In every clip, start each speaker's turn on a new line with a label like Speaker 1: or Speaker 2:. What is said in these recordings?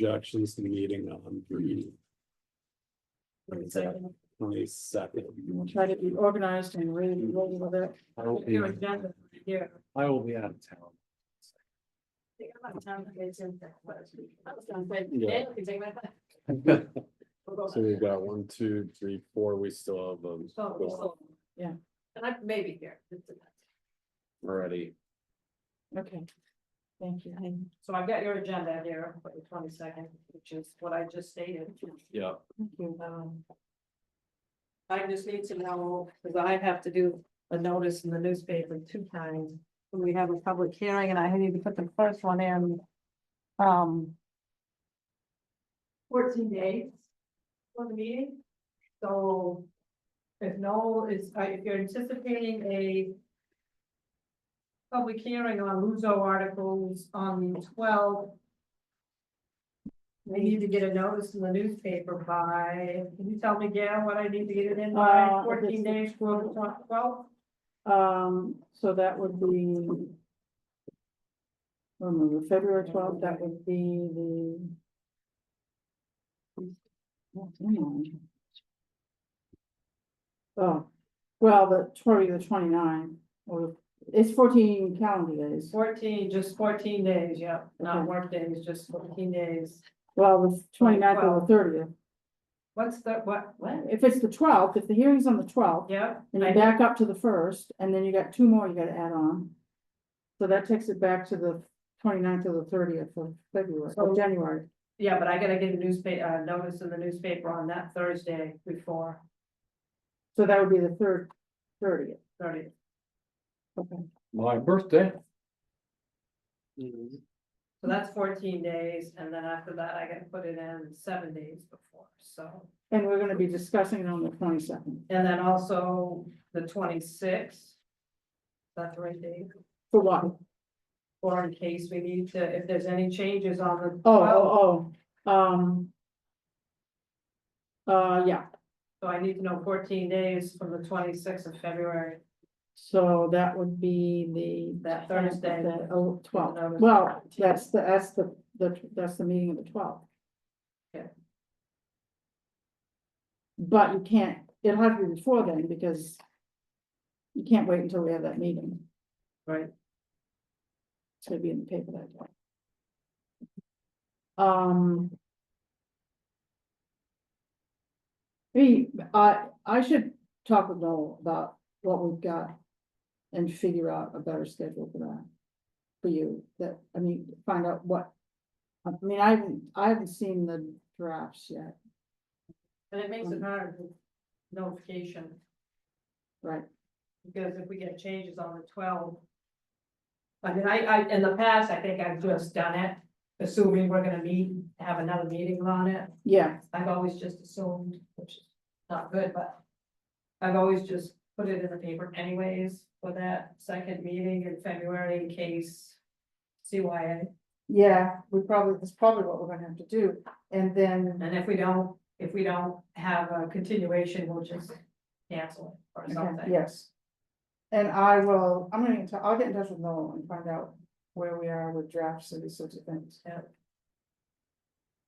Speaker 1: objections to the meeting on three
Speaker 2: We'll
Speaker 1: twenty second.
Speaker 2: try to be organized and really roll with it.
Speaker 3: I will be,
Speaker 2: Your agenda here.
Speaker 3: I will be out of town.
Speaker 2: I think I'm out of town for this and that, but I was gonna say,
Speaker 1: Yeah.
Speaker 2: yeah, we can take my time. We'll go.
Speaker 1: So we've got one, two, three, four, we still have them
Speaker 2: So, we're still- Yeah, and I may be here. It depends.
Speaker 1: already.
Speaker 2: Okay, thank you. So I've got your agenda here for the twenty second, which is what I just stated.
Speaker 1: Yeah.
Speaker 2: Thank you. Um, I just need to know, because I have to do a notice in the newspaper two times. when We have a public hearing and I need to put the first one in. Um. Fourteen days for the meeting. So if no, is, uh, if you're anticipating a public hearing on Luso articles on the twelfth, we need to get a notice in the newspaper by, can you tell me, Gail, what I need to get it in by
Speaker 4: Uh,
Speaker 2: fourteen
Speaker 4: this-
Speaker 2: days from the twelfth?
Speaker 4: Um, so that would be. Remember, February twelfth, that would be the. What's going on? Oh, well, the twenty, the twenty-nine, or it's fourteen calendar days.
Speaker 2: Fourteen, just fourteen days, yeah, not
Speaker 4: Okay.
Speaker 2: work days, just fourteen days.
Speaker 4: Well, the 29th or the thirtieth.
Speaker 2: What's the, what, what?
Speaker 4: If it's the twelfth, if the hearing's on the twelfth,
Speaker 2: Yeah,
Speaker 4: then
Speaker 2: I-
Speaker 4: you back up to the first, and then you got two more you gotta add on. So that takes it back to the 29th or the thirtieth of February,
Speaker 2: So-
Speaker 4: of January.
Speaker 2: yeah, but I gotta get a newspaper, uh, notice in the newspaper on that Thursday before
Speaker 4: So that would be the third, thirtieth.
Speaker 2: thirty.
Speaker 3: My birthday.
Speaker 2: So that's fourteen days, and then after that, I gotta put it in seven days before, so.
Speaker 4: And we're gonna be discussing it on the twenty-second
Speaker 2: And then also the twenty-sixth. That's the right date,
Speaker 4: for what? Oh,
Speaker 2: or in case we need to, if there's any changes on the.
Speaker 4: oh, oh, um. Uh, yeah,
Speaker 2: So I need to know fourteen days from the twenty-sixth of February.
Speaker 4: so that would be the.
Speaker 2: That Thursday.
Speaker 4: the- Oh, twelve,
Speaker 2: No, it's-
Speaker 4: well, that's the, that's the, the, that's the meeting of the twelfth.
Speaker 2: Yeah.
Speaker 4: But you can't, it'll have to be before then, because. You can't wait until we have that meeting,
Speaker 2: Right.
Speaker 4: it's gonna be in the paper that day. Um. We, I, I should talk with Noel about what we've got. And figure out a better schedule for that. For you, that, I mean, find out what. I mean, I haven't, I haven't seen the drafts yet,
Speaker 2: And it makes it
Speaker 4: Mm.
Speaker 2: hard with notification,
Speaker 4: right?
Speaker 2: because if we get changes on the twelve. I mean, I, I, in the past, I think I've just done it, assuming we're gonna meet, have another meeting on it.
Speaker 4: Yeah,
Speaker 2: I've always just assumed, which is not good, but. I've always just put it in the paper anyways for that second meeting in February in case. CYA,
Speaker 4: yeah, we probably, that's probably what we're gonna have to do, and then,
Speaker 2: and if we don't, if we don't have a continuation, we'll just cancel it or
Speaker 4: okay,
Speaker 2: something.
Speaker 4: yes. And I will, I'm gonna, get in tou- I'll get in touch with Noel and find out where we are with drafts and these sorts of things.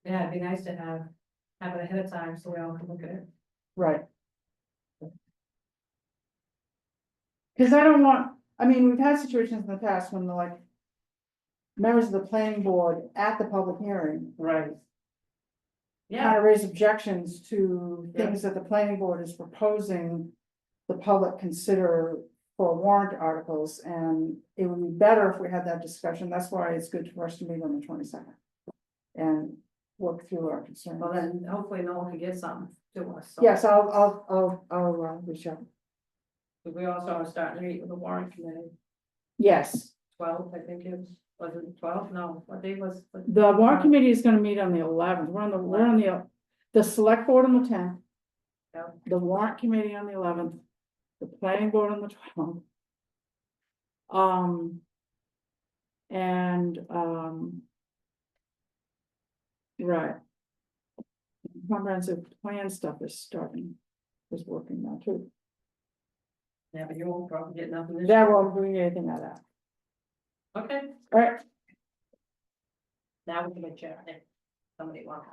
Speaker 2: Yeah, it'd be nice to have, have it ahead of time so we all can look at it.
Speaker 4: Right. Cause I don't want, I mean, we've had situations in the past when the like. Members of the planning board at the public hearing.
Speaker 2: Right. Yeah,
Speaker 4: Kind of raise objections to
Speaker 2: Yeah.
Speaker 4: things that the planning board is proposing. The public consider for warrant articles and it would be better if we had that discussion. That's why it's good for us to meet on the twenty second. And work through our concerns.
Speaker 2: well then hopefully no one can get something to us. so.
Speaker 4: Uh, Yes, I'll, I'll, I'll, I'll, uh, reach out.
Speaker 2: But We also are starting to meet with the warrant committee,
Speaker 4: Yes.
Speaker 2: twelve, I think it was, was it twelve? No, what day was? was-
Speaker 4: The warrant committee is gonna meet on the eleventh, we're on the, we're on the, the select board on the tenth.
Speaker 2: Yeah.
Speaker 4: The warrant committee on the eleventh, the planning board on the twelfth. Um. And, um. Right. Comprehensive plan stuff is starting, is working now too,
Speaker 2: Yeah, but you won't probably get nothing this
Speaker 4: that
Speaker 2: year.
Speaker 4: won't bring anything out of that,
Speaker 2: Okay,
Speaker 4: alright,
Speaker 2: now we can adjourn it. somebody wants.